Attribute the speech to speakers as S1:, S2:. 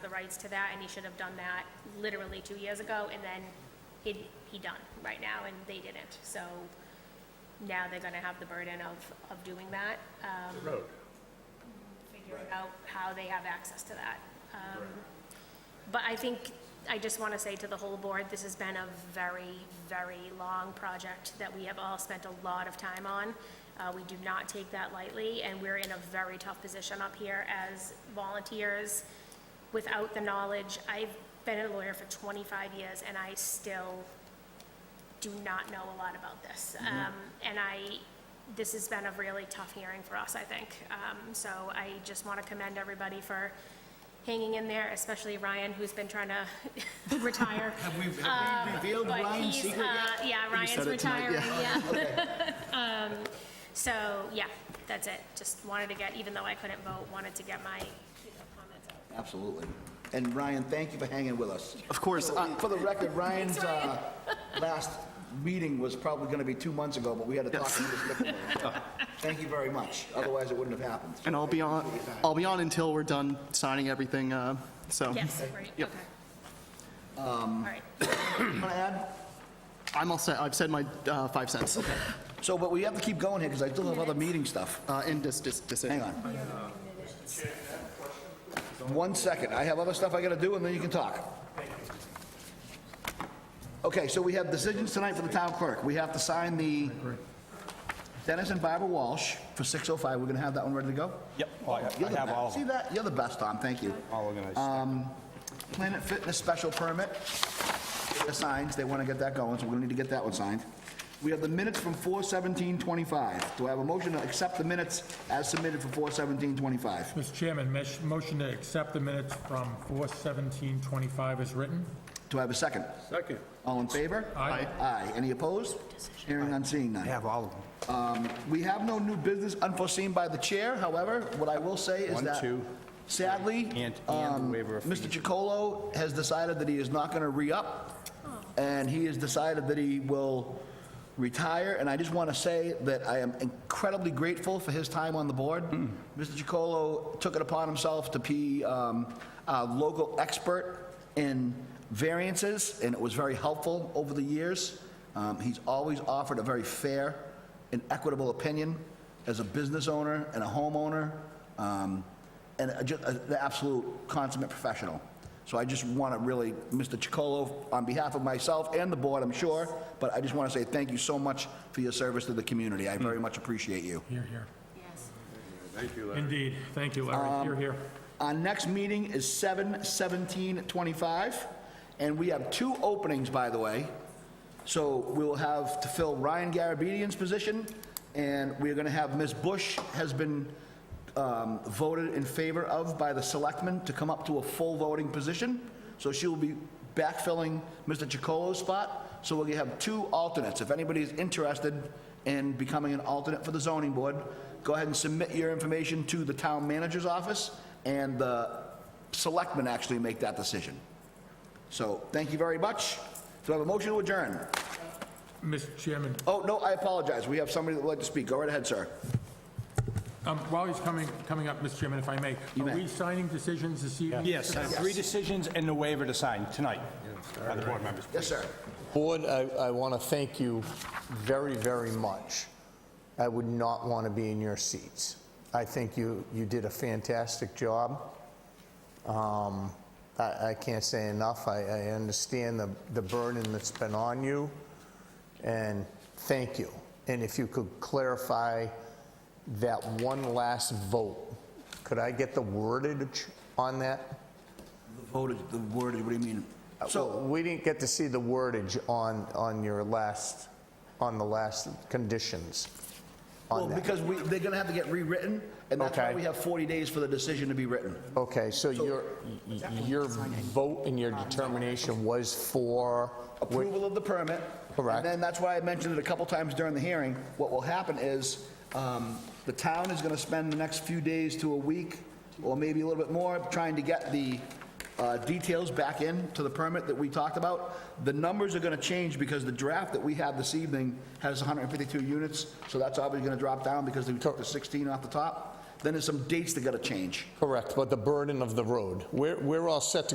S1: rights to that, and he should have done that literally two years ago, and then he'd, he done right now, and they didn't. So now they're gonna have the burden of, of doing that, um,
S2: The road.
S1: figuring
S3: Right.
S1: out how they have access to that. Um,
S2: Right.
S1: But I think, I just want to say to the whole board, this has been a very, very long project that we have all spent a lot of time on. Uh, We do not take that lightly, and we're in a very tough position up here as volunteers without the knowledge. I've been a lawyer for 25 years, and I still do not know a lot about this. Um, And I, this has been a really tough hearing for us, I think. Um, So I just want to commend everybody for hanging in there, especially Ryan, who's been trying to retire.
S3: Have we, have we revealed
S1: But
S3: Ryan's
S1: he's,
S3: secret yet?
S1: uh, Yeah, Ryan's
S3: it tonight,
S1: retiring, yeah. Um, So, yeah, that's it. Just wanted to get, even though I couldn't vote, wanted to get my you know, comments out.
S3: Absolutely. And Ryan, thank you for hanging with us.
S4: Of course,
S3: For the- For the record, Ryan's uh, last meeting was probably going to be two months ago, but we had to talk to him. Thank you very much. Otherwise, it wouldn't have happened.
S4: And I'll be on, I'll be on until we're done signing everything, uh, so.
S1: Yes, right, okay.
S4: Yep.
S1: All right.
S3: Want to add?
S4: I'm all set, I've said my uh, five cents
S3: So, but we have to keep going here because I still have other meeting stuff.
S4: uh, in this this decision.
S3: Hang on. One second, I have other stuff I gotta do, and then you can talk. Okay, so we have decisions tonight for the town clerk. We have to sign the Dennis and Barbara Walsh for 605. We're gonna have that one ready to go?
S5: Yep, I
S3: You're the
S5: I have
S3: best.
S5: all of
S3: See
S5: them,
S3: that? You're the best, Tom, thank you. Um,
S5: all organized.
S3: Planet Fitness special permit, the signs, they want to get that going, so we're going to need to get that one signed. We have the minutes from 41725. Do I have a motion to accept the minutes as submitted for 41725?
S6: Mr. Chairman, mesh- motion to accept the minutes from 4:17:25 is written.
S3: Do I have a second?
S2: Second.
S3: All in favor?
S6: Aye.
S3: Aye. Any opposed? Hearing none, seeing
S5: I
S3: none. Um,
S5: have all of them.
S3: We have no new business unforeseen by the chair, however, what I will say is
S5: One,
S3: that
S5: two,
S3: sadly,
S5: and- and the
S3: um,
S5: waiver of
S3: Mr.
S5: fees.
S3: Chacolo has decided that he is not going to re-up, and he has decided that he will retire, and I just want to say that I am incredibly grateful for his time on the board.
S5: Hmm.
S3: Mr. Chacolo took it upon himself to be um, a local expert in variances, and it was very helpful over the years. Um, He's always offered a very fair and equitable opinion as a business owner and a homeowner, um, and a- just an absolute consummate professional. So I just want to really, Mr. Chacolo, on behalf of myself and the board, I'm sure, but I just want to say thank you so much for your service to the community. I very much appreciate you.
S6: Here, here. Yes. Indeed. Thank you,
S3: Um,
S6: Larry. Here, here.
S3: Our next meeting is 7/17/25, and we have two openings, by the way. So we will have to fill Ryan Garabedian's position, and we're going to have Ms. Bush has been um, voted in favor of by the selectmen to come up to a full voting position. So she will be backfilling Mr. Chacolo's spot. So we're going to have two alternates. If anybody is interested in becoming an alternate for the zoning board, go ahead and submit your information to the town manager's office, and the selectmen actually make that decision. So thank you very much. Do I have a motion to adjourn?
S6: Mr. Chairman,
S3: Oh, no, I apologize. We have somebody that would like to speak. Go right ahead, sir.
S6: um, while he's coming, coming up, Mr. Chairman, if I may,
S3: You
S6: are
S3: may.
S6: we signing decisions this evening?
S5: Yes, I have three decisions and the waiver to sign tonight by the board members.
S3: Yes, sir.
S7: Board, I, I want to thank you very, very much. I would not want to be in your seats. I think you, you did a fantastic job. Um, I, I can't say enough. I, I understand the, the burden that's been on you, and thank you. And if you could clarify that one last vote, could I get the wordage on that?
S3: Voted, the word, what do you mean?
S7: So we didn't get to see the wordage on, on your last, on the last conditions
S3: Well,
S7: on that.
S3: because we, they're going to have to get rewritten, and that's why
S7: Okay.
S3: we have 40 days for the decision to be written.
S7: Okay, so your, your vote and your determination was for,
S3: Approval of the permit.
S7: Correct.
S3: And then that's why I mentioned it a couple times during the hearing. What will happen is, um, the town is going to spend the next few days to a week, or maybe a little bit more, trying to get the uh, details back in to the permit that we talked about. The numbers are going to change because the draft that we have this evening has 152 units, so that's obviously going to drop down because we took the 16 off the top. Then there's some dates that got to change.
S7: Correct, but the burden of the road. We're, we're all set to